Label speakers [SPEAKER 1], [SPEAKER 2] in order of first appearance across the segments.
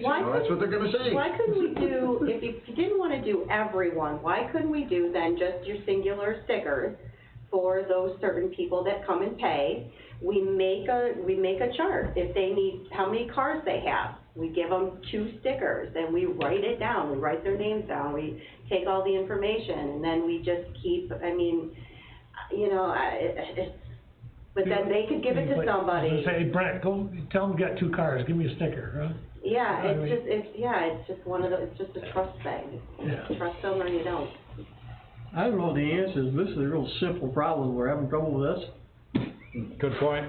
[SPEAKER 1] Why
[SPEAKER 2] Well, That's what they're gonna say.
[SPEAKER 1] Why couldn't we do, if you if you didn't wanna do everyone, why couldn't we do then just your singular stickers for those certain people that come and pay? We make a, we make a chart, if they need, how many cars they have, we give them two stickers, and we write it down, we write their names down, we take all the information, and then we just keep, I mean, you know, I, it's, but then they could give it to
[SPEAKER 3] Like,
[SPEAKER 1] somebody.
[SPEAKER 3] Say, Brett, go, tell them we got two cars, give me a sticker, huh?
[SPEAKER 1] Yeah,
[SPEAKER 3] I
[SPEAKER 1] it's
[SPEAKER 3] mean-
[SPEAKER 1] just, it's, yeah, it's just one of the, it's just a trust thing.
[SPEAKER 3] Yeah.
[SPEAKER 1] Trust them or you don't.
[SPEAKER 4] I don't know the answer, this is a real simple problem, we're having trouble with this.
[SPEAKER 5] Good point.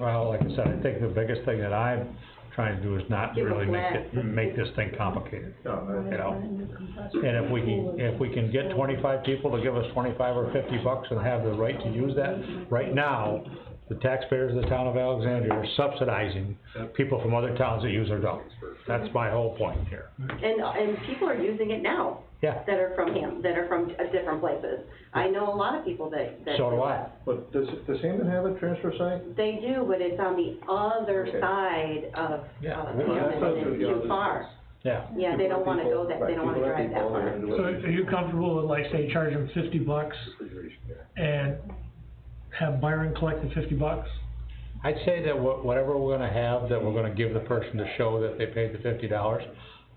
[SPEAKER 5] Well, like I said, I think the biggest thing that I'm trying to do is not
[SPEAKER 1] Give a
[SPEAKER 5] really make it,
[SPEAKER 1] blast.
[SPEAKER 5] make this thing complicated,
[SPEAKER 2] No,
[SPEAKER 5] you know? And if we can, if we can get twenty-five people to give us twenty-five or fifty bucks and have the right to use that, right now, the taxpayers of the town of Alexandria are subsidizing people from other towns that use their dogs. That's my whole point here.
[SPEAKER 1] And, and people are using it now
[SPEAKER 5] Yeah,
[SPEAKER 1] that are from him, that are from uh, different places. I know a lot of people that, that.
[SPEAKER 5] so do I.
[SPEAKER 2] But does, does Hammond have a transfer site?
[SPEAKER 1] They do, but it's on the other
[SPEAKER 2] Okay.
[SPEAKER 1] side of,
[SPEAKER 5] Yeah.
[SPEAKER 1] of
[SPEAKER 2] Well, that's
[SPEAKER 1] Hammond,
[SPEAKER 2] up to
[SPEAKER 1] and
[SPEAKER 2] the
[SPEAKER 1] too
[SPEAKER 2] others.
[SPEAKER 1] far.
[SPEAKER 5] Yeah,
[SPEAKER 1] Yeah, they don't wanna go that, they don't wanna drive that far.
[SPEAKER 3] So are you comfortable with like, say, charge them fifty bucks and have Byron collect the fifty bucks?
[SPEAKER 5] I'd say that wha- whatever we're gonna have, that we're gonna give the person to show that they paid the fifty dollars,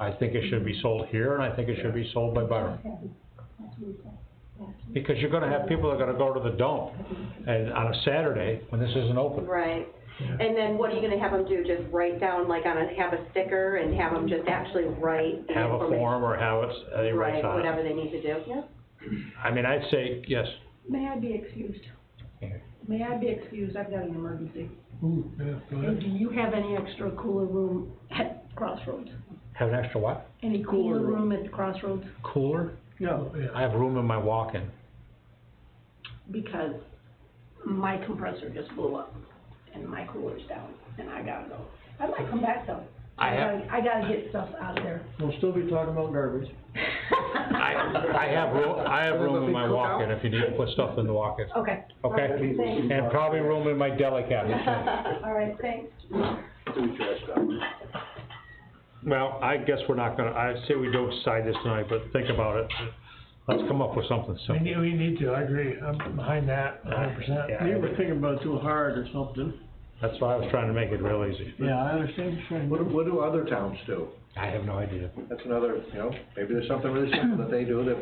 [SPEAKER 5] I think it should be sold here, and I think it should be sold by Byron. Because you're gonna have people that are gonna go to the dump, and on a Saturday, when this isn't open.
[SPEAKER 1] Right. And then what are you gonna have them do? Just write down, like, on a, have a sticker and have them just actually write the
[SPEAKER 5] Have a
[SPEAKER 1] information?
[SPEAKER 5] form or have it, uh, they write
[SPEAKER 1] Right,
[SPEAKER 5] on
[SPEAKER 1] whatever
[SPEAKER 5] it.
[SPEAKER 1] they need to do. Yeah.
[SPEAKER 5] I mean, I'd say, yes,
[SPEAKER 6] May I be excused?
[SPEAKER 5] Okay.
[SPEAKER 6] May I be excused? I've got an emergency.
[SPEAKER 3] Ooh, yeah, go
[SPEAKER 6] And
[SPEAKER 3] ahead.
[SPEAKER 6] do you have any extra cooler room at Crossroads?
[SPEAKER 5] have an extra what?
[SPEAKER 6] Any
[SPEAKER 4] Cooler
[SPEAKER 6] cooler room at the Crossroads?
[SPEAKER 5] Cooler?
[SPEAKER 4] No.
[SPEAKER 3] Yeah.
[SPEAKER 5] I have room in my walk-in.
[SPEAKER 6] Because my compressor just blew up and my cooler's down and I gotta go. I might come back though.
[SPEAKER 5] I have-
[SPEAKER 6] gotta- I gotta get stuff out of there.
[SPEAKER 4] We'll still be talking about garbage.
[SPEAKER 5] I, I have room, I have room in my walk-in if you need to put stuff in the walk-in,
[SPEAKER 6] Okay.
[SPEAKER 5] okay?
[SPEAKER 6] Thanks.
[SPEAKER 5] And probably room in my deli cabinet, too.
[SPEAKER 6] All right, thanks.
[SPEAKER 5] Well, I guess we're not gonna, I say we don't decide this tonight, but think about it. Let's come up with something
[SPEAKER 3] We
[SPEAKER 5] simple.
[SPEAKER 3] need, we need to, I agree, I'm behind that a hundred percent.
[SPEAKER 5] Yeah.
[SPEAKER 4] You were thinking about it too hard or something.
[SPEAKER 5] That's why I was trying to make it real easy.
[SPEAKER 3] Yeah, I understand,
[SPEAKER 2] What, do- what do other towns do?
[SPEAKER 5] I have no idea.
[SPEAKER 2] That's another, you know, maybe there's something really simple that they do that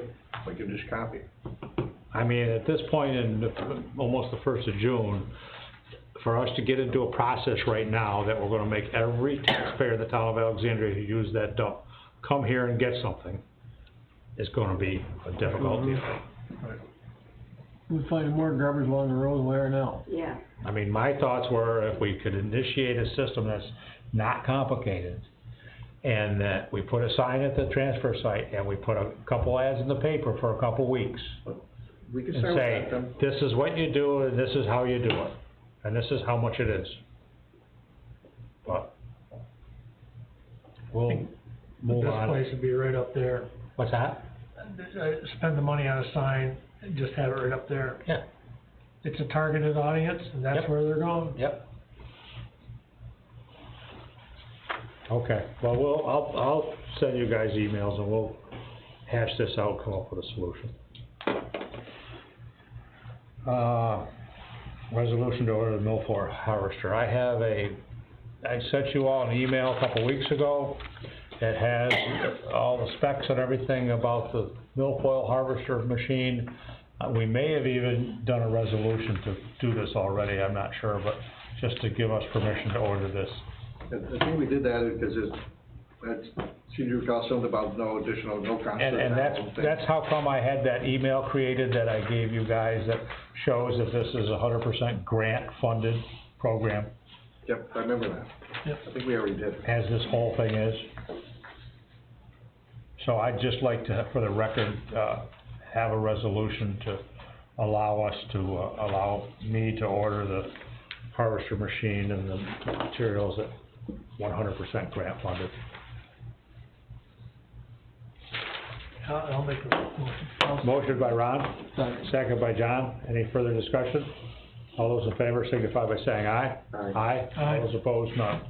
[SPEAKER 2] we can just copy.
[SPEAKER 5] I mean, at this point in the- almost the first of June, for us to get into a process right now that we're gonna make every taxpayer in the town of Alexandria who used that dump come here and get something is gonna be a difficult deal.
[SPEAKER 4] We're finding more garbage along the road than we are now.
[SPEAKER 1] Yeah.
[SPEAKER 5] I mean, my thoughts were if we could initiate a system that's not complicated and that we put a sign at the transfer site and we put a couple ads in the paper for a couple weeks
[SPEAKER 2] We can
[SPEAKER 5] and
[SPEAKER 2] start
[SPEAKER 5] say,
[SPEAKER 2] with them.
[SPEAKER 5] this is what you do and this is how you do it, and this is how much it is. But we'll move
[SPEAKER 3] This
[SPEAKER 5] on.
[SPEAKER 3] place would be right up there,
[SPEAKER 5] What's that?
[SPEAKER 3] Uh, spend the money on a sign, and just have it right up there.
[SPEAKER 5] Yeah.
[SPEAKER 3] It's a targeted audience, and that's
[SPEAKER 5] Yep.
[SPEAKER 3] where they're going.
[SPEAKER 5] Yep. Okay, well, we'll, I'll, I'll send you guys emails and we'll hash this out, come up with a solution. Uh, resolution to order the mill for harvester. I have a, I sent you all an email a couple weeks ago that has all the specs and everything about the milfoil harvester machine. Uh, we may have even done a resolution to do this already, I'm not sure, but just to give us permission to order this.
[SPEAKER 2] I think we did that because it's, that's, see, you call something about no additional, no cost.
[SPEAKER 5] And, and that's, that's how come I had that email created that I gave you guys that shows that this is a hundred percent grant-funded program,
[SPEAKER 2] Yep, I remember that.
[SPEAKER 3] Yep.
[SPEAKER 2] I think we already did.
[SPEAKER 5] as this whole thing is. So I'd just like to, for the record, uh, have a resolution to allow us to, uh, allow me to order the harvester machine and the materials at one hundred percent grant-funded.
[SPEAKER 3] I'll, I'll make a motion.
[SPEAKER 5] Motion by Ron, second by John. Any further discussion? All those in favor signify by saying aye.
[SPEAKER 2] Aye.
[SPEAKER 5] Aye.
[SPEAKER 3] Aye.
[SPEAKER 5] All those opposed, none.